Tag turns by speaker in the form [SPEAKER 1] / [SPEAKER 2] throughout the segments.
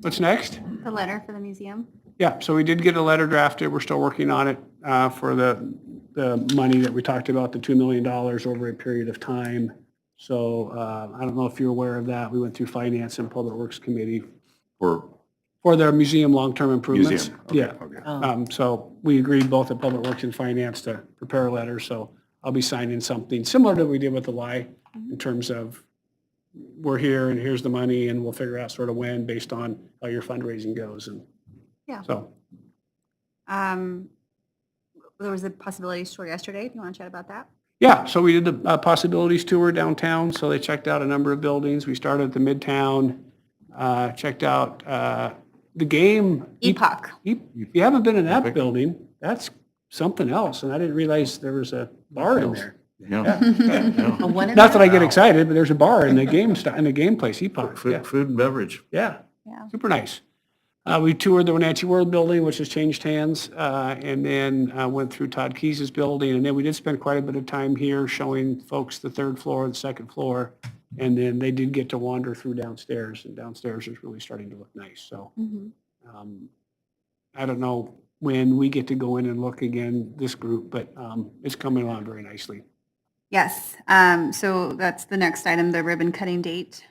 [SPEAKER 1] What's next?
[SPEAKER 2] The letter for the museum?
[SPEAKER 1] Yeah, so we did get a letter drafted. We're still working on it uh, for the, the money that we talked about, the $2 million over a period of time. So uh, I don't know if you're aware of that. We went through Finance and Public Works Committee
[SPEAKER 3] Or
[SPEAKER 1] for their museum long-term improvements.
[SPEAKER 3] museum? Okay,
[SPEAKER 1] Yeah.
[SPEAKER 3] okay.
[SPEAKER 1] Um, So we agreed both at Public Works and Finance to prepare a letter, so I'll be signing something similar to what we did with the Y in terms of we're here and here's the money and we'll figure out sort of when based on how your fundraising goes and
[SPEAKER 2] Yeah.
[SPEAKER 1] so.
[SPEAKER 2] Um, There was a possibilities tour yesterday. Do you want to chat about that?
[SPEAKER 1] Yeah, so we did the uh, possibilities tour downtown, so they checked out a number of buildings. We started at the Midtown, uh, checked out uh, the game.
[SPEAKER 2] Epoch.
[SPEAKER 1] If if you haven't been in that
[SPEAKER 3] Epic.
[SPEAKER 1] building, that's something else, and I didn't realize there was a bar in there.
[SPEAKER 3] Yeah. yeah.
[SPEAKER 4] A one and a
[SPEAKER 1] Not that I
[SPEAKER 4] half?
[SPEAKER 1] get excited, but there's a bar in the game, sti- in the game place, Epoch, yeah,
[SPEAKER 3] Food, food and beverage.
[SPEAKER 1] yeah,
[SPEAKER 2] Yeah.
[SPEAKER 1] super nice. Uh, We toured the Wenatchee World Building, which has changed hands, uh, and then uh, went through Todd Keyes's building, and then we did spend quite a bit of time here showing folks the third floor and the second floor, and then they did get to wander through downstairs, and downstairs is really starting to look nice, so.
[SPEAKER 2] Mhm.
[SPEAKER 1] um, I don't know when we get to go in and look again, this group, but um, it's coming along very nicely.
[SPEAKER 2] Yes, um, so that's the next item, the ribbon cutting date.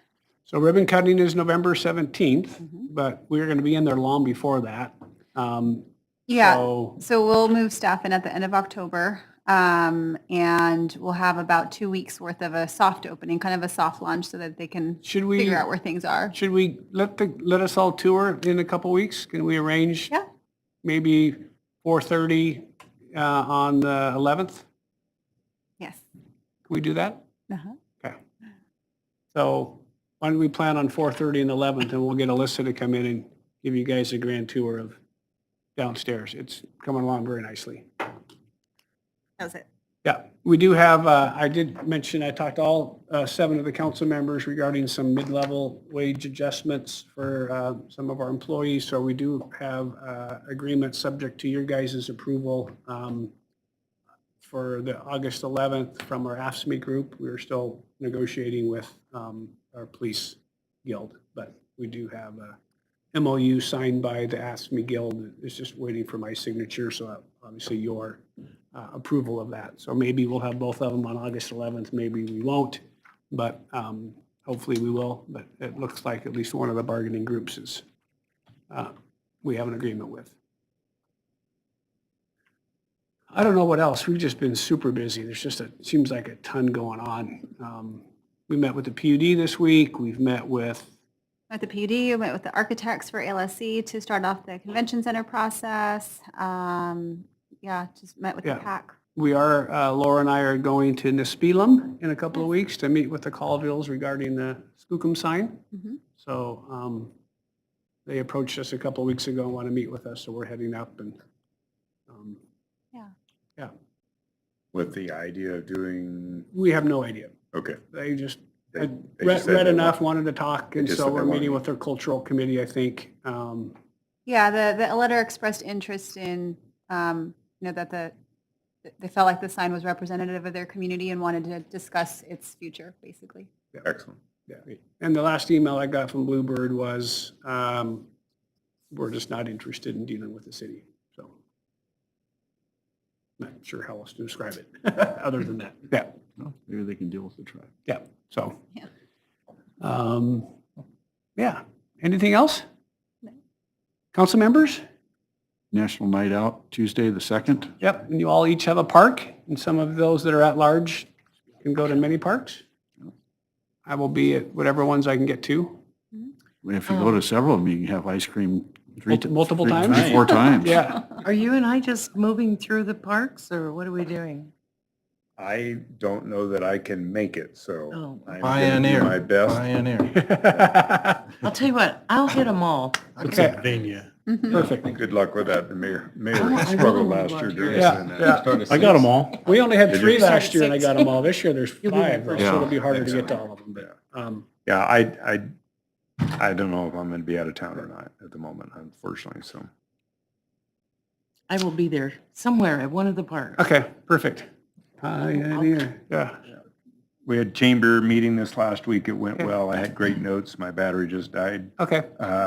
[SPEAKER 1] So ribbon cutting is November 17th,
[SPEAKER 2] Mhm.
[SPEAKER 1] but we're going to be in there long before that. Um,
[SPEAKER 2] Yeah,
[SPEAKER 1] So,
[SPEAKER 2] so we'll move staff in at the end of October, um, and we'll have about two weeks worth of a soft opening, kind of a soft launch so that they can
[SPEAKER 1] should we,
[SPEAKER 2] figure out where things are.
[SPEAKER 1] should we let the, let us all tour in a couple weeks? Can we arrange
[SPEAKER 2] Yeah,
[SPEAKER 1] maybe 4:30 uh, on the 11th? Can
[SPEAKER 2] yes.
[SPEAKER 1] we do that?
[SPEAKER 2] Uh-huh.
[SPEAKER 1] So why don't we plan on 4:30 and 11th, and we'll get Alyssa to come in and give you guys a grand tour of downstairs. It's coming along very nicely.
[SPEAKER 2] That was it.
[SPEAKER 1] Yeah, we do have, uh, I did mention, I talked to all uh, seven of the council members regarding some mid-level wage adjustments for uh, some of our employees. So we do have uh, agreements subject to your guys' approval um, for the August 11th from our AFSMI group. We're still negotiating with um, our police guild, but we do have uh, a MOU signed by the AFSMI guild. It's just waiting for my signature, so obviously your uh, approval of that. So maybe we'll have both of them on August 11th, maybe we won't, but um, hopefully we will. But it looks like at least one of the bargaining groups is, uh, we have an agreement with. I don't know what else, we've just been super busy, there's just a, seems like a ton going on. Um, We met with the PUD this week, we've met with
[SPEAKER 2] Met the PUD, we met with the architects for ALSC to start off the convention center process. Um, Yeah, just met with the
[SPEAKER 1] Yeah.
[SPEAKER 2] PAC.
[SPEAKER 1] We are, uh, Laura and I are going to Nispelum in a couple of weeks to meet with the Colvilles regarding the Skookum sign.
[SPEAKER 2] Mhm.
[SPEAKER 1] So um, they approached us a couple of weeks ago and want to meet with us, so we're heading up and, um,
[SPEAKER 3] With the idea of doing,
[SPEAKER 1] we have no idea.
[SPEAKER 3] okay.
[SPEAKER 1] They just,
[SPEAKER 3] They-
[SPEAKER 1] had
[SPEAKER 3] they just said
[SPEAKER 1] read read
[SPEAKER 3] they
[SPEAKER 1] enough,
[SPEAKER 3] want-
[SPEAKER 1] wanted to talk, and
[SPEAKER 3] just
[SPEAKER 1] so
[SPEAKER 3] said they
[SPEAKER 1] we're meeting
[SPEAKER 3] wanted-
[SPEAKER 1] with their cultural committee, I think. Um,
[SPEAKER 2] Yeah, the, the letter expressed interest in, um, you know, that the, they felt like the sign was representative of their community and wanted to discuss its future, basically.
[SPEAKER 3] Excellent.
[SPEAKER 1] Yeah, and the last email I got from Bluebird was, um, we're just not interested in dealing with the city, so. Not sure how else to describe it, other than that, yeah,
[SPEAKER 3] Maybe they can deal with the tribe.
[SPEAKER 1] yeah, so.
[SPEAKER 2] Yeah.
[SPEAKER 1] Um, yeah, anything else?
[SPEAKER 2] No.
[SPEAKER 1] Council members?
[SPEAKER 3] National Night Out, Tuesday, the 2nd.
[SPEAKER 1] Yep, and you all each have a park, and some of those that are at large can go to many parks. I will be at whatever ones I can get to.
[SPEAKER 3] If you go to several of them, you can have ice cream three. ti-
[SPEAKER 1] Multiple
[SPEAKER 3] three-
[SPEAKER 1] times?
[SPEAKER 3] three, Four times.
[SPEAKER 1] Yeah,
[SPEAKER 4] Are you and I just moving through the parks or what are we doing?
[SPEAKER 5] I don't know that I can make it, so.
[SPEAKER 4] Oh.
[SPEAKER 5] I'm gonna do
[SPEAKER 6] Pioneer.
[SPEAKER 5] My best.
[SPEAKER 6] Pioneer.
[SPEAKER 4] I'll tell you what, I'll hit them all.
[SPEAKER 1] okay,
[SPEAKER 6] Pennsylvania.
[SPEAKER 1] perfect.
[SPEAKER 5] Good luck with that. The mayor,
[SPEAKER 4] Oh, I
[SPEAKER 5] mayor struggled
[SPEAKER 4] really
[SPEAKER 5] last year
[SPEAKER 4] want
[SPEAKER 5] doing
[SPEAKER 1] to. Yeah, yeah.
[SPEAKER 5] that.
[SPEAKER 6] I got them all.
[SPEAKER 1] We only had
[SPEAKER 5] Did
[SPEAKER 1] three
[SPEAKER 5] you?
[SPEAKER 1] last year, and I got them all. This year, there's
[SPEAKER 4] You'll be the
[SPEAKER 1] five, so
[SPEAKER 4] first
[SPEAKER 1] it'll
[SPEAKER 3] one.
[SPEAKER 1] be harder to
[SPEAKER 5] Yeah.
[SPEAKER 1] get to all of them, but, um,
[SPEAKER 5] Yeah, I, I, I don't know if I'm going to be out of town or not at the moment, unfortunately, so.
[SPEAKER 4] I will be there somewhere at one of the parks.
[SPEAKER 1] okay, perfect. Pioneer, yeah.
[SPEAKER 5] We had chamber meeting this last week. It went well. I had great notes. My battery just died.
[SPEAKER 1] Okay.
[SPEAKER 5] Uh,